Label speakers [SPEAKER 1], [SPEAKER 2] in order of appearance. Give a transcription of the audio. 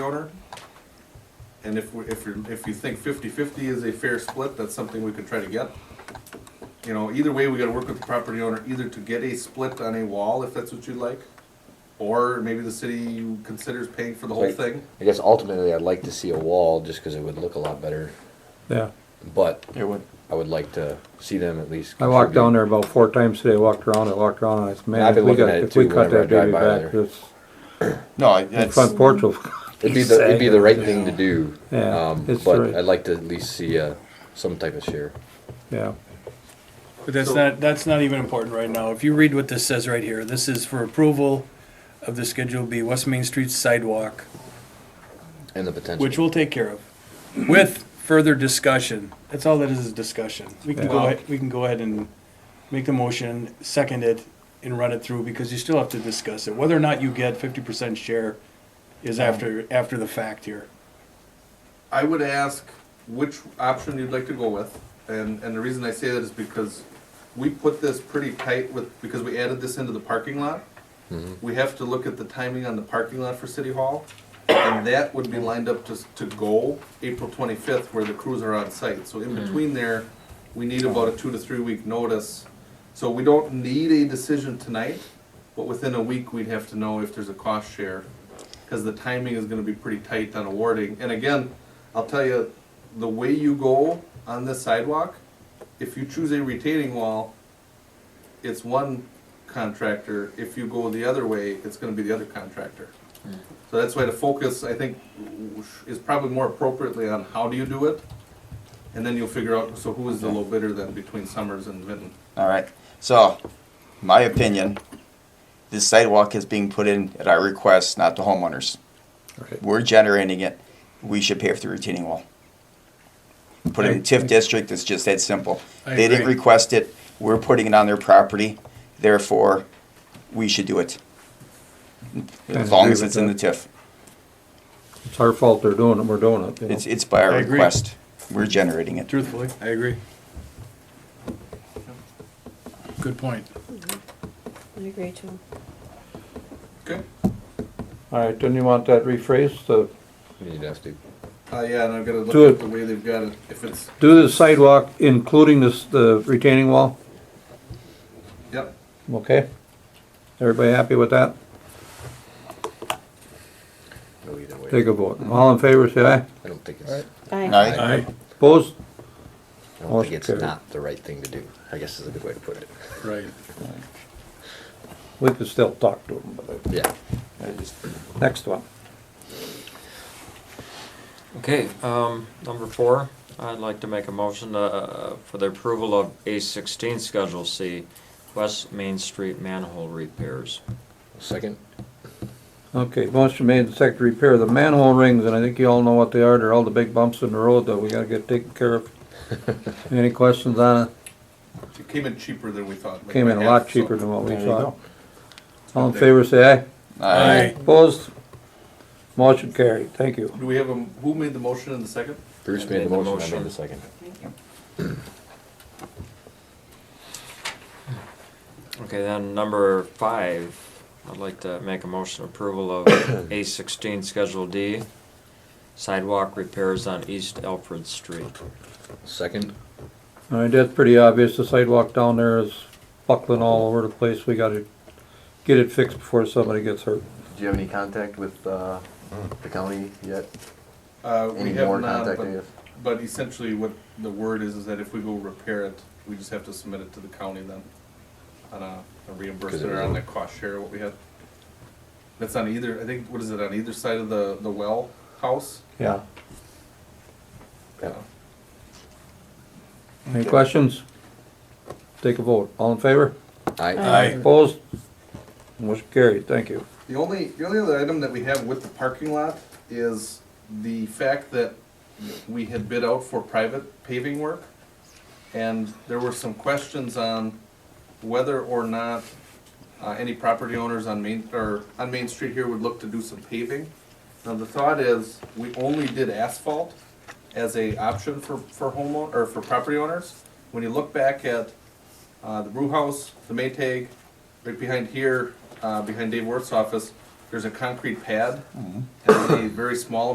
[SPEAKER 1] owner. And if, we- if you, if you think 50-50 is a fair split, that's something we could try to get. You know, either way, we gotta work with the property owner, either to get a split on a wall, if that's what you'd like, or maybe the city considers paying for the whole
[SPEAKER 2] Right.
[SPEAKER 1] thing.
[SPEAKER 2] I guess ultimately I'd like to see a wall just because it would look a lot better,
[SPEAKER 3] Yeah,
[SPEAKER 2] but
[SPEAKER 4] It would.
[SPEAKER 2] I would like to see them at least.
[SPEAKER 3] I walked
[SPEAKER 2] contribute.
[SPEAKER 3] down there about four times today, walked around, I walked around, I said, man,
[SPEAKER 2] I've
[SPEAKER 3] if
[SPEAKER 2] been
[SPEAKER 3] we
[SPEAKER 2] looking
[SPEAKER 3] got,
[SPEAKER 2] at it
[SPEAKER 3] if we
[SPEAKER 2] too
[SPEAKER 3] cut
[SPEAKER 2] whenever I
[SPEAKER 3] that
[SPEAKER 2] drive
[SPEAKER 3] baby
[SPEAKER 2] by
[SPEAKER 3] back,
[SPEAKER 2] there.
[SPEAKER 3] this
[SPEAKER 4] No, I-
[SPEAKER 3] the
[SPEAKER 4] that's,
[SPEAKER 3] front porch will,
[SPEAKER 2] It'd be the, it'd be the right thing to do,
[SPEAKER 3] Yeah,
[SPEAKER 2] um,
[SPEAKER 3] it's
[SPEAKER 2] but
[SPEAKER 3] right.
[SPEAKER 2] I'd like to at least see, uh, some type of share.
[SPEAKER 3] yeah.
[SPEAKER 5] But that's
[SPEAKER 1] So-
[SPEAKER 5] not, that's not even important right now. If you read what this says right here, this is for approval of the Schedule B West Main Street sidewalk,
[SPEAKER 2] And the potential.
[SPEAKER 5] which we'll take care of, with further discussion. That's all that is, is discussion. We can go,
[SPEAKER 1] Yeah.
[SPEAKER 5] ahead- we can go ahead and make the motion, second it, and run it through, because you still have to discuss it. Whether or not you get fifty percent share is after, after the fact here.
[SPEAKER 1] I would ask which option you'd like to go with, and, and the reason I say that is because we put this pretty tight with, because we added this into the parking lot. We have to look at the timing on the parking lot for City Hall, and that would be lined up to, s- to go April twenty-fifth, where the crews are on site, so in between there, we need about a two to three week notice. So we don't need a decision tonight, but within a week, we'd have to know if there's a cost share because the timing is gonna be pretty tight on awarding. And again, I'll tell you, the way you go on this sidewalk, if you choose a retaining wall, it's one contractor. If you go the other way, it's gonna be the other contractor.
[SPEAKER 3] Hmm.
[SPEAKER 1] So that's why the focus, I think, is probably more appropriately on how do you do it? And then you'll figure out, so who is the low bidder then between Summers and Vinton?
[SPEAKER 4] all right. So, my opinion, this sidewalk is being put in at our request, not the homeowners.
[SPEAKER 3] Right.
[SPEAKER 4] We're generating it. We should pay for the retaining wall. Put it in TIF district. It's just that simple.
[SPEAKER 5] I
[SPEAKER 4] They didn't
[SPEAKER 5] agree.
[SPEAKER 4] request it. We're putting it on their property. Therefore, we should do it.
[SPEAKER 3] I
[SPEAKER 4] As long
[SPEAKER 3] agree
[SPEAKER 4] as
[SPEAKER 3] with
[SPEAKER 4] it's in the
[SPEAKER 3] that.
[SPEAKER 4] TIF.
[SPEAKER 3] It's our fault they're doing it, we're doing it, you know.
[SPEAKER 4] It's, it's by our
[SPEAKER 5] I agree.
[SPEAKER 4] request. We're generating it.
[SPEAKER 5] Truthfully, I agree. Good point.
[SPEAKER 6] I agree too.
[SPEAKER 1] Okay.
[SPEAKER 3] All right, then you want that rephrased, to
[SPEAKER 2] You'd have to.
[SPEAKER 1] Uh, yeah, and I've gotta
[SPEAKER 3] Do
[SPEAKER 1] look
[SPEAKER 3] it.
[SPEAKER 1] at the way they've got it, if it's,
[SPEAKER 3] do the sidewalk including this, the retaining wall,
[SPEAKER 1] yep.
[SPEAKER 3] okay? Everybody happy with that?
[SPEAKER 2] go either way.
[SPEAKER 3] Take a vote, all in favor, say aye.
[SPEAKER 2] I don't think it's,
[SPEAKER 6] Aye.
[SPEAKER 4] Aye.
[SPEAKER 3] Opposed?
[SPEAKER 2] I don't think
[SPEAKER 3] Motion
[SPEAKER 2] it's
[SPEAKER 3] carried.
[SPEAKER 2] not the right thing to do, I guess is a good way to put it.
[SPEAKER 5] Right.
[SPEAKER 3] We could still talk to them, but,
[SPEAKER 2] Yeah.
[SPEAKER 4] I just-
[SPEAKER 3] next one.
[SPEAKER 7] Okay, um, number four, I'd like to make a motion, uh, for the approval of A sixteen Schedule C, West Main Street manhole repairs.
[SPEAKER 2] Second,
[SPEAKER 3] Okay, motion made and seconded to repair the manhole rings, and I think you all know what they are, they're all the big bumps in the road that we gotta get taken care of. Any questions on it?
[SPEAKER 1] It came in cheaper than we thought. like
[SPEAKER 3] Came in
[SPEAKER 1] by
[SPEAKER 3] a
[SPEAKER 1] half,
[SPEAKER 3] lot
[SPEAKER 1] so-
[SPEAKER 3] cheaper than what we
[SPEAKER 4] There you
[SPEAKER 3] thought.
[SPEAKER 4] go.
[SPEAKER 3] All in favor, say aye.
[SPEAKER 5] Aye.
[SPEAKER 3] Opposed? Motion carried, thank you.
[SPEAKER 1] Do we have a, who made the motion in the second?
[SPEAKER 2] Bruce made the motion, I made the second.
[SPEAKER 7] Okay, then number five, I'd like to make a motion approval of A sixteen Schedule D, sidewalk repairs on East Alfred Street.
[SPEAKER 2] Second,
[SPEAKER 3] All right, that's pretty obvious, the sidewalk down there is buckling all over the place, we gotta get it fixed before somebody gets hurt.
[SPEAKER 8] Do you have any contact with uh, the county yet?
[SPEAKER 1] Uh, we
[SPEAKER 8] Any
[SPEAKER 1] have
[SPEAKER 8] more
[SPEAKER 1] not,
[SPEAKER 8] contact, I
[SPEAKER 1] but,
[SPEAKER 8] guess?
[SPEAKER 1] but essentially what the word is, is that if we go repair it, we just have to submit it to the county then. uh, On a a reimbursement or on the cost share, what we had. That's on either, I think, what is it, on either side of the, the well house? Uh,
[SPEAKER 3] Yeah.
[SPEAKER 1] Yeah.
[SPEAKER 3] Any questions? Take a vote, all in favor?
[SPEAKER 2] aye,
[SPEAKER 4] Aye.
[SPEAKER 3] Opposed? Motion carried, thank you.
[SPEAKER 1] The only, the only other item that we have with the parking lot is the fact that we had bid out for private paving work. And there were some questions on whether or not, uh, any property owners on Main, or on Main Street here would look to do some paving. Now, the thought is, we only did asphalt as a option for, for homeowner, or for property owners. When you look back at, uh, the brew house, the Maytag, right behind here, uh, behind Dave Worth's office, there's a concrete pad and a very small